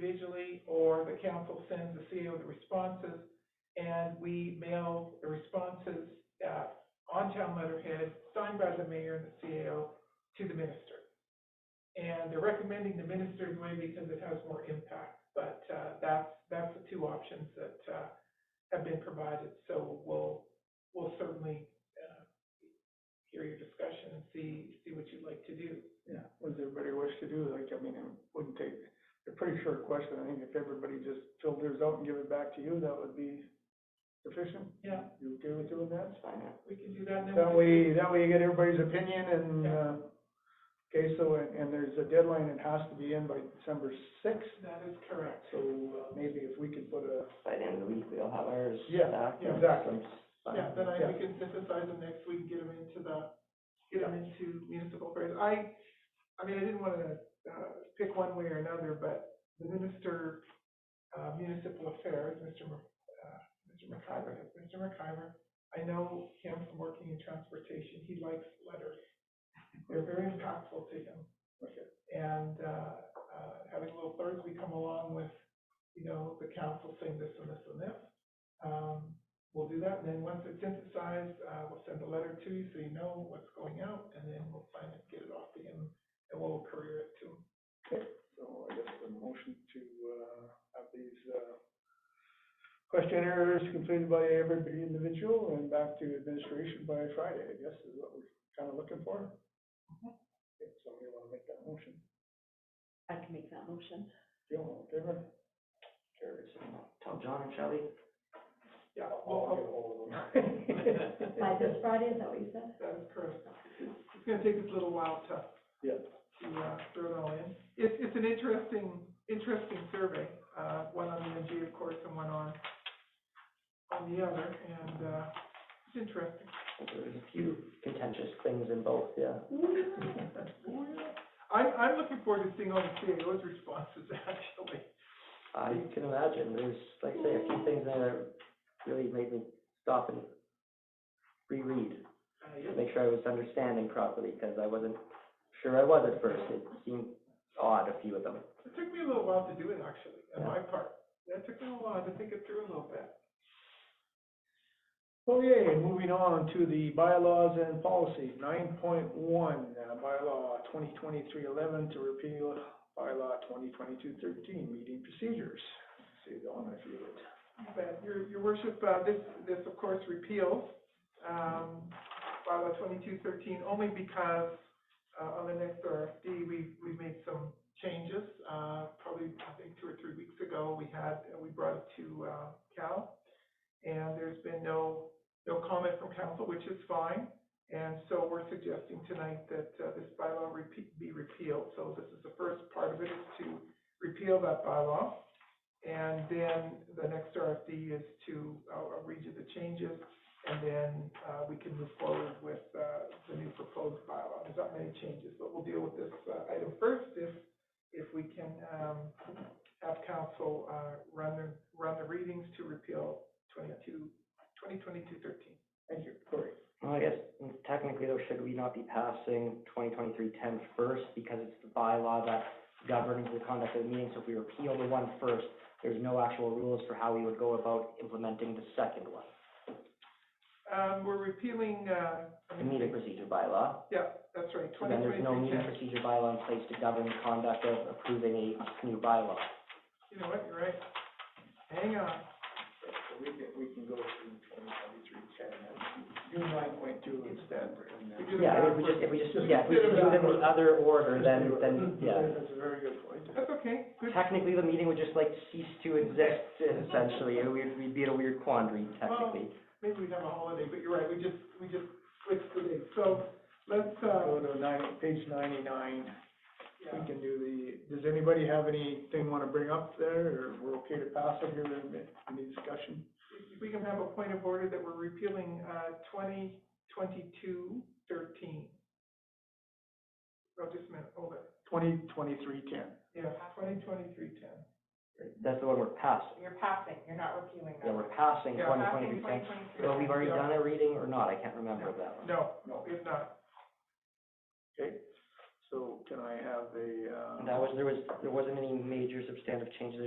individually, or the council sends a CO of the responses, and we mail the responses, uh, on town letterhead, signed by the mayor and the CO to the minister. And they're recommending the minister's way because it has more impact, but, uh, that's, that's the two options that, uh, have been provided, so we'll, we'll certainly, uh, hear your discussion and see, see what you'd like to do. Yeah, what does everybody wish to do? Like, I mean, it wouldn't take, a pretty short question. I think if everybody just filled theirs out and give it back to you, that would be sufficient. Yeah, You okay with doing that? we can do that, and then That we way, that way you get everybody's opinion and, Yeah. uh, okay, so, and, and there's a deadline, it has to be in by December sixth. That is correct. So uh, maybe if we could put a, By the end of the week, we'll have ours Yeah, back. yeah, exactly. Yeah, then I, uh, Yeah. we can synthesize them next week and get them into the, get them into municipal affairs. I, I mean, I didn't wanna, uh, pick one way or another, but the minister, uh, municipal affairs, Mr. Mc- uh, Mr. McIver, Mr. McIver, I know him from working in transportation, he likes letters. They're very impactful to him. Okay. And, uh, uh, having little thirds, we come along with, you know, the council saying this and this and this. Um, we'll do that, and then once it's synthesized, uh, we'll send a letter to you so you know what's going out, and then we'll sign it, get it off to him, and we'll courier it to him. so I guess a motion to, uh, have these, uh, questionnaires completed by every individual and back to administration by Friday, I guess is what we're kind of looking for. If somebody want to make that motion, I can make that motion. Joe, all in favor? Carries. Tell John and Shelley. Yeah, I'll well, get hold of them. By this Friday, is that what you said? that is correct. It's gonna take us a little while to, Yeah, to, uh, throw it all in. It's, it's an interesting, interesting survey, uh, one on the MG, of course, and one on, on the other, and, uh, it's interesting. There was a few contentious things in both, yeah. Oh, yeah. I'm, I'm looking forward to seeing all the CAO's responses, actually. I can imagine, there's, like I say, a few things in there that really made me stop and reread Uh, to make sure I was understanding properly, because I wasn't sure I was at first. It seemed odd, a few of them. It took me a little while to do it, actually, on Yeah. my part. It took me a while to think it through a little bit. Okay, moving on to the bylaws and policy, nine point one, uh, bylaw 2023-11 to repeal bylaw 2022-13 meeting procedures. See the one I feel it. But your, your worship, uh, this, this of course repeals, um, bylaw twenty-two thirteen, only because, uh, on the next RFD, we, we made some changes. Uh, probably, I think, two or three weeks ago, we had, we brought it to, uh, Cal. And there's been no, no comment from council, which is fine. And so we're suggesting tonight that, uh, this bylaw repeat, be repealed. So this is the first part of it, is to repeal that bylaw. And then the next RFD is to, uh, I'll read you the changes, and then, uh, we can move forward with, uh, the new proposed bylaw. There's not many changes, but we'll deal with this, uh, item first if, if we can, um, have council, uh, run the, run the readings to repeal 22 2022-13. Thank you, Cory. Well, I guess mm, technically though, should we not be passing 2023 10 first because it's the bylaw that governs the conduct of the meeting? So if we repeal the one first, there's no actual rules for how we would go about implementing the second one. Um, we're repealing, uh. I The mean- meeting procedure bylaw. Yeah, that's right, So twenty then there's no twenty-three meeting ten. procedure bylaw in place to govern the conduct of approving a new bylaw. You know what, you're right. Hang on. So we can, we can go through twenty twenty-three ten, do nine point two instead. and then- We do- Yeah, if we just, if we just, Just yeah, if we just do it in the consider that. other order, then, then, yeah. That's a very good point. That's okay, good. Technically, the meeting would just like cease to exist essentially. We'd, we'd be in a weird quandary technically. maybe we'd have a holiday, but you're right, we just, we just switched the dates. So let's, Go uh, to nine, page ninety-nine. yeah, We can do the, does anybody have anything want to bring up there, or we're okay to pass it here, any discussion? if- if we can have a point of order that we're repealing, uh, twenty twenty-two thirteen. Oh, just a minute, hold it. Twenty twenty-three ten. Yeah, twenty twenty-three ten. That's the one we're passing. You're passing, you're not repealing Yeah, we're passing Yeah, twenty passing twenty-three ten. 2023. So we've already Yeah. done a reading or not, I can't remember that one. No, no, it's not. Okay, so can I have uh? a, uh? That was, there was, there wasn't any major substantive changes